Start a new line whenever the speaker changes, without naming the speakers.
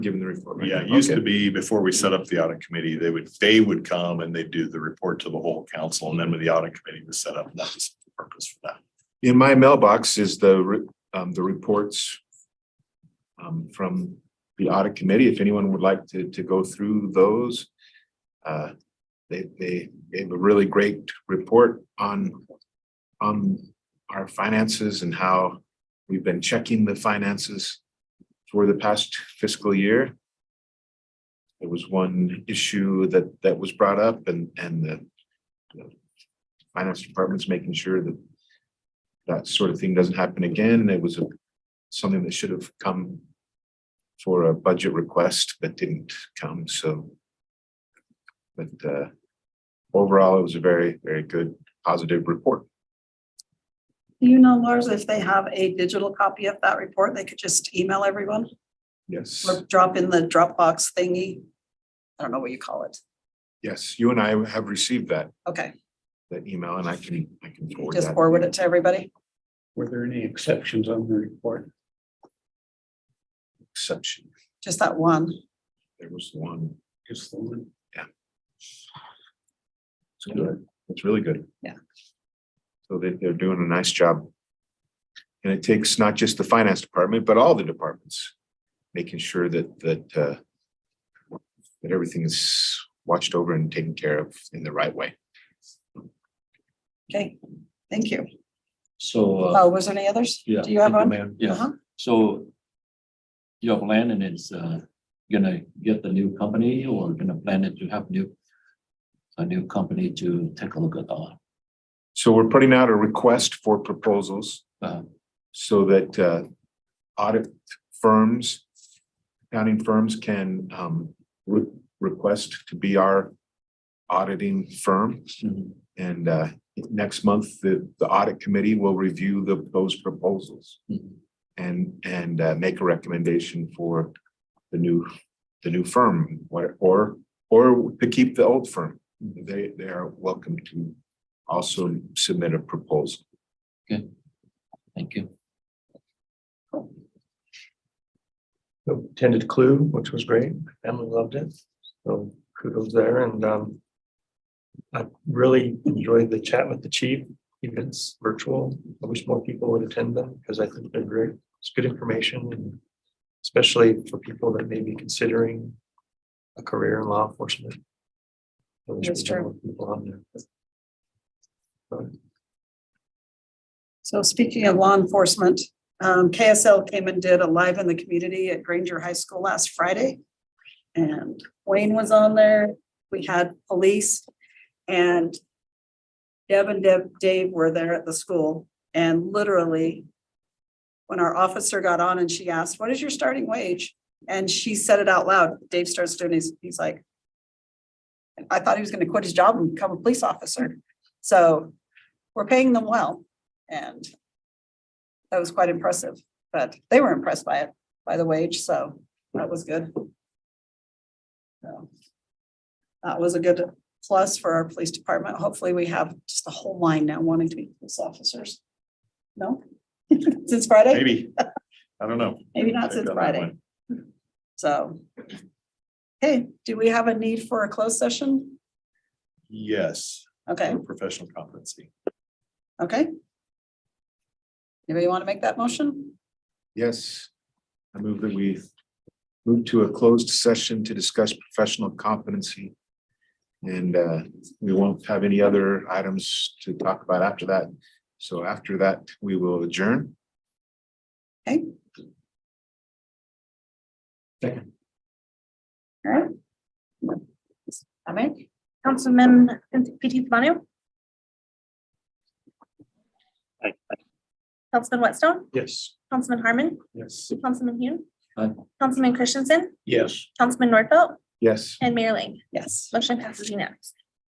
given the report.
Yeah, it used to
Okay.
be before we set up the audit committee, they would, they would come and they'd do the report to the whole council. And then when the audit committee was set up, that was the purpose for that.
In my mailbox is the, re- um, the reports um, from the audit committee. If anyone would like to, to go through those. Uh, they, they gave a really great report on, on our finances and how we've been checking the finances for the past fiscal year. There was one issue that, that was brought up and, and the the finance department's making sure that that sort of thing doesn't happen again. It was a- something that should have come for a budget request, but didn't come, so. But uh, overall, it was a very, very good, positive report.
Do you know, Lars, if they have a digital copy of that report, they could just email everyone
Yes.
or drop in the Dropbox thingy? I don't know what you call it.
Yes, you and I have received that,
Okay,
that email, and I can, I can forward
just
that.
forward it to everybody.
Were there any exceptions on the report?
Exception,
Just that one.
there was one,
Just the one.
it's good, it's really good.
Yeah.
So they, they're doing a nice job. And it takes not just the finance department, but all the departments, making sure that, that, uh, that everything is watched over and taken care of in the right way.
Okay, thank you.
So, uh,
Oh, was there any others?
yeah.
Do you have
thank
one?
Mayor. Yeah,
Uh-huh.
so you have Landon is, uh, gonna get the new company or gonna plan it to have new, a new company to take a look at all.
So we're putting out a request for proposals
Uh,
so that uh, audit firms, accounting firms can um, re- request to be our auditing firm.
Mm-hmm.
mhm.
And uh, next month, the, the audit committee will review the, those proposals and, and uh, make a recommendation for the new, the new firm, what- or, or to keep the old firm. They, they are welcome to also submit a proposal.
Thank you.
Attended Clue, which was great. Emily loved it. So kudos there and um. I really enjoyed the chat with the chief, events virtual. I wish more people would attend them because I think they're great. It's good information and. Especially for people that may be considering a career in law enforcement. I wish we
That's
had
true.
more People on there.
So speaking of law enforcement, um, KSL came and did a live in the community at Granger High School last Friday. And Wayne was on there. We had police and Deb and Deb, Dave were there at the school and literally when our officer got on and she asked, what is your starting wage? And she said it out loud. Dave starts doing his, he's like, I thought he was going to quit his job and become a police officer. So we're paying them well. And that was quite impressive, but they were impressed by it, by the wage, so that was good. So That was a good plus for our police department. Hopefully, we have just the whole line now wanting to be police officers. No? Since Friday?
Maybe, I don't know.
Maybe
Check
not since
on that
Friday.
one.
So. Hey, do we have a need for a closed session?
Yes,
Okay,
for professional competency.
okay. Anybody want to make that motion?
Yes. I move that we move to a closed session to discuss professional competency. And uh, we won't have any other items to talk about after that. So after that, we will adjourn.
All right. I make?
Councilman Fifty Manu.
Aye.
Councilman Whitstone,
Yes.
Councilman Harmon,
Yes.
Councilman Hume.
Aye.
Councilman Christensen,
Yes.
Councilman Norfelt,
Yes.
and Mayor Ling.
Yes.
Motion passes unanimously.